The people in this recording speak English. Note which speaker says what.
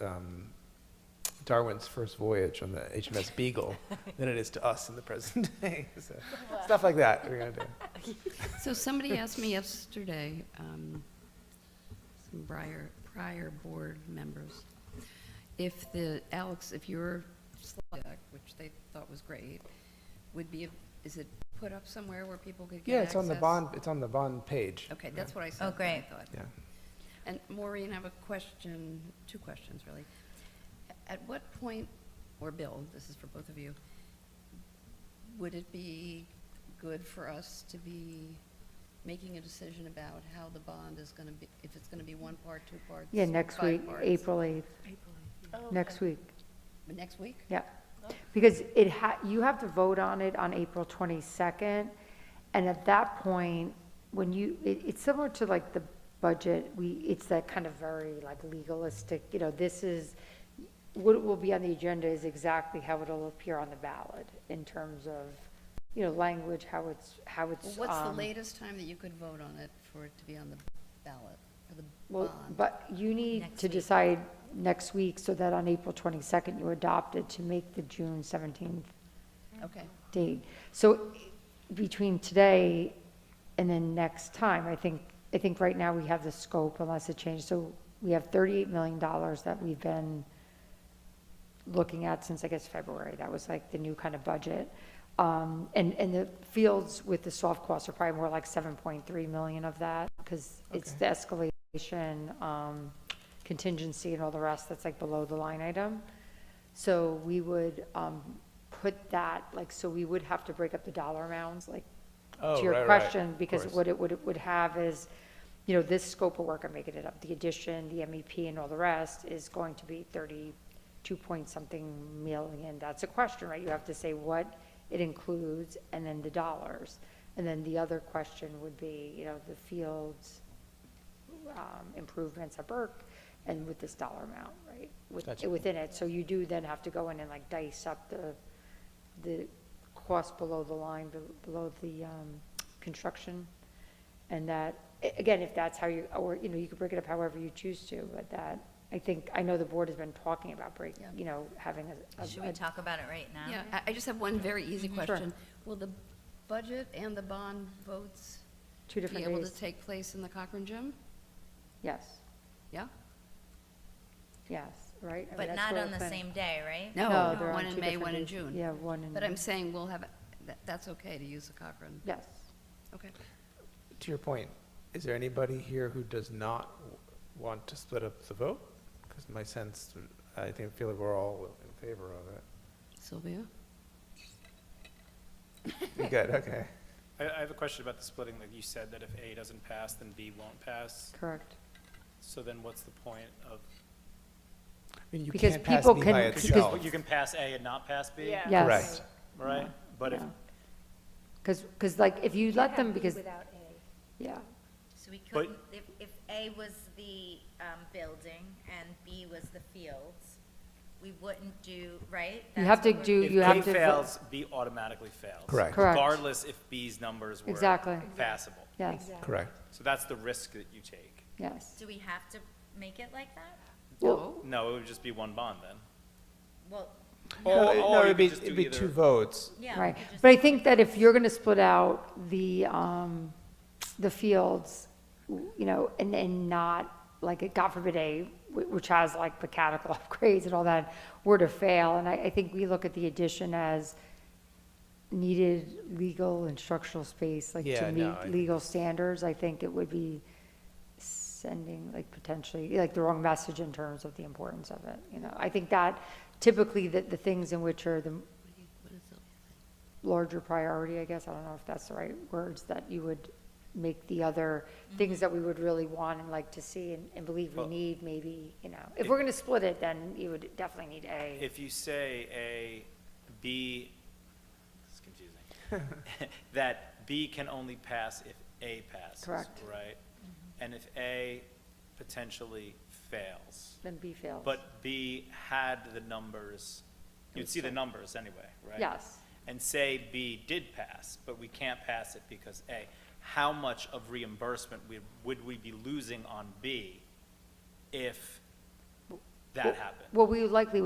Speaker 1: um, Darwin's first voyage on the HMS Beagle than it is to us in the present day. So, Stuff like that we're gonna do.
Speaker 2: So somebody asked me yesterday, um, some prior, prior board members, if the, Alex, if your slide deck, which they thought was great, would be, is it put up somewhere where people could get
Speaker 1: Yeah,
Speaker 2: access?
Speaker 1: it's on the bond, it's on the bond page.
Speaker 2: Okay, that's what I said.
Speaker 3: Oh,
Speaker 2: what I
Speaker 3: great.
Speaker 2: thought.
Speaker 1: Yeah.
Speaker 2: And Maureen, I have a question, two questions, really. At what point, or Bill, this is for both of you, would it be good for us to be making a decision about how the bond is going to be, if it's going to be one part, two parts?
Speaker 4: Yeah, next
Speaker 2: five
Speaker 4: week,
Speaker 2: parts?
Speaker 4: April 8th, next week,
Speaker 2: Next week?
Speaker 4: yeah. Because it ha, you have to vote on it on April 22nd, and at that point, when you, it, it's similar to like the budget, we, it's that kind of very like legalistic, you know, this is, what will be on the agenda is exactly how it'll appear on the ballot in terms of, you know, language, how it's, how it's.
Speaker 2: Well, What's the
Speaker 4: um,
Speaker 2: latest time that you could vote on it for it to be on the ballot, for the
Speaker 4: Well,
Speaker 2: bond?
Speaker 4: but you
Speaker 3: Um,
Speaker 4: need
Speaker 3: Next
Speaker 4: to
Speaker 3: week.
Speaker 4: decide next week so that on April 22nd, you adopt it to make the June 17th
Speaker 2: Okay,
Speaker 4: date. So between today and then next time, I think, I think right now we have the scope unless it changes. So we have $38 million that we've been looking at since, I guess, February. That was like the new kind of budget. Um, And, and the fields with the soft costs are probably more like 7.3 million of that because it's the escalation, um, contingency and all the rest that's like below the line item. So we would um, put that, like, so we would have to break up the dollar amounts, like,
Speaker 1: Oh,
Speaker 4: to
Speaker 1: right,
Speaker 4: your
Speaker 1: right,
Speaker 4: question,
Speaker 1: of
Speaker 4: because
Speaker 1: course.
Speaker 4: what it would, would have is, you know, this scope of work, I'm making it up, the addition, the MEP and all the rest is going to be thirty-two point something million. That's a question, right? You have to say what it includes and then the dollars. And then the other question would be, you know, the fields, um, improvements at Burke and with this dollar amount, right? with-
Speaker 1: Gotcha.
Speaker 4: Within it, so you do then have to go in and like dice up the, the cost below the line, be- below the, um, construction. And that, a- again, if that's how you, or, you know, you could break it up however you choose to, but that, I think, I know the board has been talking about break,
Speaker 2: Yeah.
Speaker 4: you know, having a- a.
Speaker 3: Should we
Speaker 4: a-
Speaker 3: talk about it right now?
Speaker 2: yeah, I- I just have one very easy
Speaker 4: Sure.
Speaker 2: question. Will the budget and the bond votes
Speaker 4: Two
Speaker 2: be
Speaker 4: different
Speaker 2: able to
Speaker 4: days,
Speaker 2: take place in the Cochrane Gym?
Speaker 4: yes,
Speaker 2: Yeah?
Speaker 4: yes, right? I mean,
Speaker 3: But
Speaker 4: that's
Speaker 3: not
Speaker 4: what
Speaker 3: on
Speaker 4: we're
Speaker 3: the
Speaker 4: planning.
Speaker 3: same day, right?
Speaker 4: No, they're on
Speaker 2: uh, One
Speaker 4: two
Speaker 2: in May,
Speaker 4: different
Speaker 2: one in
Speaker 4: days.
Speaker 2: June.
Speaker 4: Yeah, one in.
Speaker 2: But I'm saying we'll have, that, that's okay to use the Cochrane.
Speaker 4: Yes,
Speaker 2: Okay.
Speaker 1: To your point, is there anybody here who does not w- want to split up the vote? Because my sense, I think, feel that we're all in favor of it.
Speaker 2: Sylvia?
Speaker 1: You're Good, okay.
Speaker 5: I, I have a question about the splitting, like you said that if A doesn't pass, then B won't pass.
Speaker 4: correct.
Speaker 5: So then what's the point of,
Speaker 1: I mean, you
Speaker 4: Because
Speaker 1: can't pass
Speaker 4: people
Speaker 1: B
Speaker 4: can-
Speaker 1: by
Speaker 4: because-
Speaker 1: itself.
Speaker 5: you can pass A and not pass B?
Speaker 6: Yeah.
Speaker 4: Yes.
Speaker 1: Correct.
Speaker 5: Right? But if,
Speaker 4: Yeah. Because, because like, if you let them, because,
Speaker 7: Without A.
Speaker 4: yeah,
Speaker 3: So we
Speaker 5: But-
Speaker 3: couldn't, if, if A was the um, building and B was the fields, we wouldn't do, right?
Speaker 4: you
Speaker 3: That's
Speaker 4: have to
Speaker 3: what we're-
Speaker 4: do, you have
Speaker 5: if
Speaker 4: to.
Speaker 5: A
Speaker 4: vote.
Speaker 5: fails, B automatically fails.
Speaker 1: Correct.
Speaker 4: Correct.
Speaker 5: Regardless if B's numbers were
Speaker 4: Exactly.
Speaker 5: passable.
Speaker 4: Yes,
Speaker 1: Correct.
Speaker 5: So that's the risk that you take.
Speaker 4: yes.
Speaker 3: Do we have to make it like that?
Speaker 4: Well,
Speaker 5: No, it would just be one bond then.
Speaker 3: Well,
Speaker 1: No,
Speaker 5: Or-
Speaker 1: it-
Speaker 5: or
Speaker 1: no,
Speaker 5: you
Speaker 1: it'd
Speaker 5: could
Speaker 1: be,
Speaker 5: just do
Speaker 1: it'd be
Speaker 5: either-
Speaker 1: two votes.
Speaker 3: yeah. we
Speaker 4: Right,
Speaker 3: could just-
Speaker 4: but I think that if you're going to split out the, um, the fields, w- you know, and, and not, like, God forbid A, wh- which has like mechanical upgrades and all that, were to fail, and I, I think we look at the addition as needed legal and structural space, like
Speaker 1: Yeah,
Speaker 4: to
Speaker 1: no, I-
Speaker 4: meet legal standards, I think it would be sending like potentially, like the wrong message in terms of the importance of it, you know? I think that typically the, the things in which are the larger priority, I guess, I don't know if that's the right words, that you would make the other things that we would really want and like to see and, and believe we
Speaker 5: Mm-hmm. Well-
Speaker 4: need, maybe, you know. If we're gonna split it, then you would definitely need A.
Speaker 5: If you say A, B, it's confusing, that B can only pass if A passes.
Speaker 4: Correct.
Speaker 5: Right? And if A potentially fails,
Speaker 4: Then B fails.
Speaker 5: but B had the numbers, you'd see the numbers anyway, right?
Speaker 4: Yes.
Speaker 5: And say B did pass, but we can't pass it because A, how much of reimbursement we- would we be losing on B if that happen.
Speaker 4: Well, we likely